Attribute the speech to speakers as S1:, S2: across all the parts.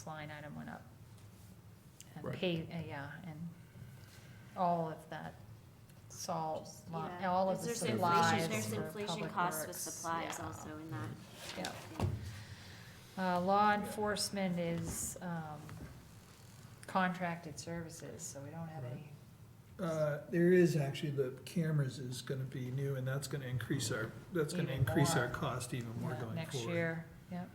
S1: this line item went up. And
S2: Right.
S1: pay, uh, yeah, and all of that salt,
S3: Just-
S1: li-
S3: yeah.
S1: all of
S3: There's-
S1: the
S3: there's
S1: supplies
S3: inflation- There's
S1: for
S3: inflation
S1: public
S3: costs with
S1: works,
S3: supplies
S1: yeah,
S3: also in that.
S1: yeah.
S3: thing.
S1: Uh, law enforcement is, um, contracted services, so we don't have
S2: Right.
S1: any,
S2: Uh, there is actually, the cameras is gonna be new, and that's gonna increase our, that's gonna
S1: Even
S2: increase our
S1: more.
S2: cost even more
S1: uh,
S2: going forward.
S1: next year, yep.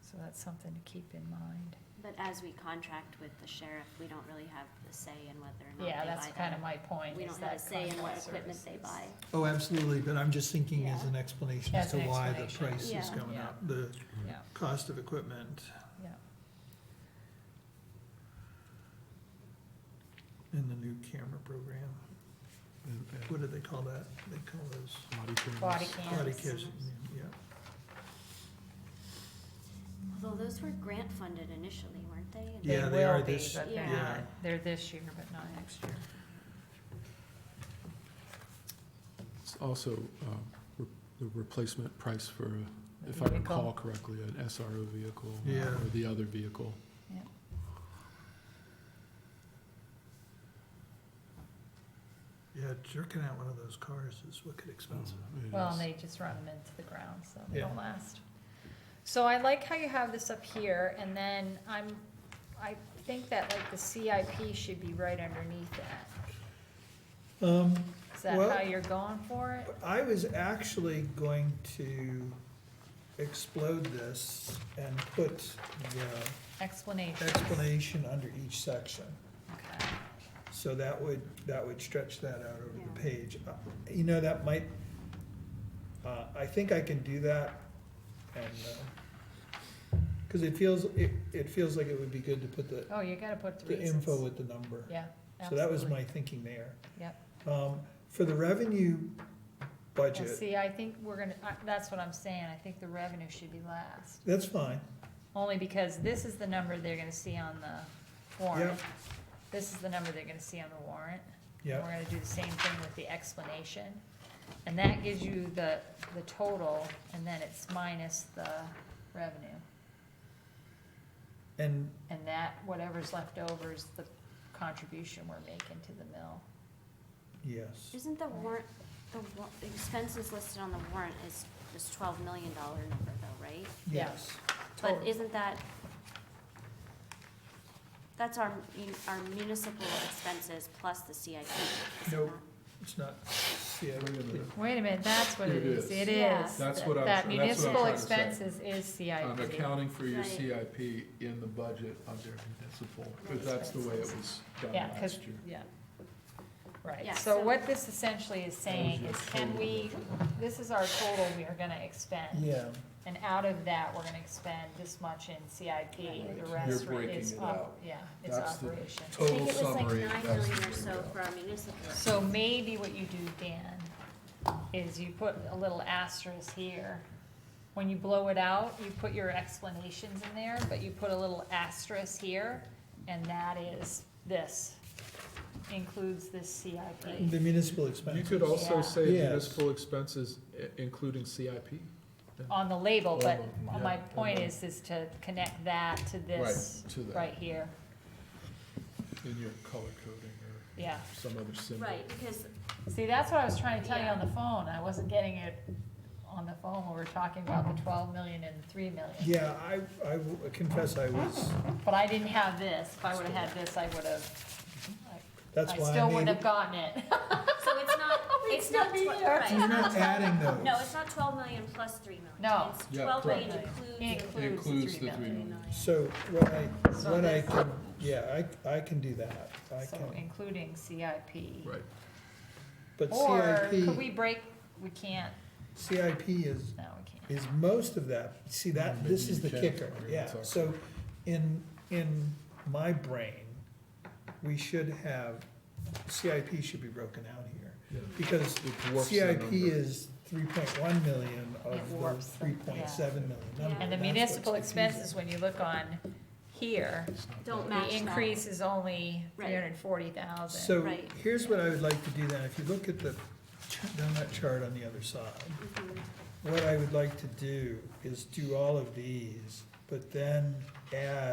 S1: So that's something to keep in mind.
S3: But as we contract with the sheriff, we don't really have a say in whether or not they buy
S1: Yeah, that's kind of
S3: that.
S1: my point.
S3: We
S1: is
S3: don't have a
S1: that
S3: say in what
S1: contract
S3: equipment they
S1: services.
S3: buy.
S2: Oh, absolutely, but I'm just thinking as
S3: Yeah.
S2: an explanation as
S1: As
S2: to
S1: an
S2: why the
S1: explanation.
S2: price is
S3: Yeah.
S2: going
S1: Yeah.
S2: up, the
S1: Yeah,
S2: cost of equipment
S1: yeah.
S2: and the new camera program. What do they call that? They call those
S1: Body
S2: body
S1: cams.
S2: cams, yeah.
S3: Although those were grant funded initially, weren't they? And
S2: Yeah, they are this-
S1: They will be, but they're
S3: yeah.
S1: not, they're this year, but not next year.
S4: It's also um, re- the replacement price for,
S1: the
S4: if I
S1: vehicle.
S4: recall correctly, an SRO vehicle uh,
S2: Yeah.
S4: or the other vehicle.
S2: Yeah, jerking out one of those cars is wicked expensive.
S4: It
S1: Well,
S4: is.
S1: and they just run them into the ground, so they
S2: Yeah.
S1: don't last. So I like how you have this up here, and then I'm, I think that like the CIP should be right underneath that.
S2: Um,
S1: Is that how
S2: Well-
S1: you're going for it?
S2: I was actually going to explode this and put the
S1: Explanation.
S2: explanation under each section.
S1: Okay.
S2: So that would, that would stretch that out over the
S3: Yeah.
S2: page. Uh, You know, that might, uh, I think I can do that and, uh, cause it feels, it, it feels like it would be good to put the,
S1: Oh, you gotta put the
S2: the info
S1: reasons.
S2: with the number.
S1: Yeah,
S2: So that was
S1: absolutely.
S2: my thinking there.
S1: Yep.
S2: Um, for the revenue
S1: Well,
S2: budget,
S1: see, I think we're gonna, I- that's what I'm saying, I think the revenue should be last.
S2: that's fine.
S1: Only because this is the number they're gonna see on the warrant. This is the number they're gonna see on the warrant. And
S2: Yeah,
S1: We're gonna do the same thing with the explanation. And that gives you the, the total, and then it's minus the revenue.
S2: and
S1: And that, whatever's left over is the contribution we're making to the mill.
S2: yes,
S3: Isn't the warrant, the wa- the expenses listed on the warrant is this twelve million dollar number though, right?
S1: Yeah.
S2: yes.
S3: But
S1: Total.
S3: isn't that, that's our, mun- our municipal expenses plus the CIP, isn't
S2: Nope.
S3: that?
S2: It's not, yeah,
S5: Wait a minute.
S1: Wait a minute, that's what it
S4: It
S1: is,
S4: is.
S1: it
S3: Yeah.
S1: is.
S5: That's what I'm
S1: That
S5: tr- that's what I'm
S1: municipal
S5: trying to say.
S1: expenses is
S5: I'm
S1: CIP.
S5: accounting for your
S3: Right.
S5: CIP in the budget under municipal, because that's the way it was done
S1: Yeah, 'cause-
S5: last year.
S1: Yeah. Right,
S3: Yeah,
S1: so
S3: so-
S1: what this essentially is saying
S5: your
S1: is can
S5: total.
S1: we, this is our total we are gonna expend.
S2: yeah,
S1: And out of that, we're gonna expend this much in CIP,
S5: Right. You're
S1: the rest re-
S5: breaking
S1: is,
S5: it
S1: op-
S5: out.
S1: yeah, it's
S5: That's the
S1: operation.
S3: I think
S5: Total
S3: it was like
S5: summary,
S3: nine
S5: that's the
S3: million or
S5: figure.
S3: so for our municipal.
S1: So maybe what you do, Dan, is you put a little asterisk here. When you blow it out, you put your explanations in there, but you put a little asterisk here, and that is this, includes this CIP.
S2: the municipal
S4: You
S2: expenses.
S4: could also
S1: Yeah.
S4: say
S2: Yes.
S4: municipal expenses, i- including CIP.
S1: On the label, but
S4: Yeah.
S1: my point is, is to connect that to
S5: Mm-hmm.
S1: this
S5: Right, to that.
S1: right here,
S4: in your color coding
S1: yeah.
S4: or some other symbol.
S3: Right, because
S1: See, that's what I was trying to tell you
S3: Yeah.
S1: on the phone, I wasn't getting it on the phone when we were talking about the twelve million and the three million.
S2: Mm-hmm. Yeah, I, I will confess I was,
S1: But I didn't have this, if I would've had this, I would've,
S2: that's
S1: I
S2: why
S1: still
S2: I
S1: wouldn't
S2: made
S1: have
S2: it.
S1: gotten it.
S3: So it's not,
S1: We'd
S3: it's
S1: still
S3: not,
S1: be
S3: tw-
S1: here.
S3: right.
S2: You're not adding those.
S3: No, it's not twelve million plus three million.
S1: No.
S3: It's
S5: Yeah,
S3: twelve
S5: correct.
S3: million includes.
S1: Includes
S5: It includes the
S1: the
S5: three
S1: three
S5: million.
S2: So what I,
S1: So
S2: what I
S1: this-
S2: can, yeah, I, I can do that, I
S1: So
S2: can,
S1: including CIP.
S4: Right.
S2: but
S1: Or could
S2: CIP,
S1: we break, we can't,
S2: CIP is
S1: no, we can't.
S2: is most of that, see that,
S4: Maybe
S2: this is
S4: you
S2: the
S4: can.
S2: kicker,
S4: We're gonna
S2: yeah,
S4: talk.
S2: so in, in my brain, we should have, CIP should be broken out here,
S4: Yeah.
S2: because
S4: It dwarfs the
S2: CIP
S4: number.
S2: is three point one million
S1: It
S2: of the
S1: warps the-
S2: three point seven million
S3: Yeah.
S2: number.
S1: And the
S2: That's what's
S1: municipal
S2: confusing.
S1: expenses, when you look on here,
S4: It's not
S3: Don't
S4: that-
S3: match
S1: the
S3: that.
S1: increase is only
S3: Right.
S1: three hundred and forty thousand.
S2: So,
S3: Right.
S2: here's what I would like to do then, if you look at the ch- donut chart on the other side,
S3: Mhm.
S2: what I would like to do is do all of these, but then add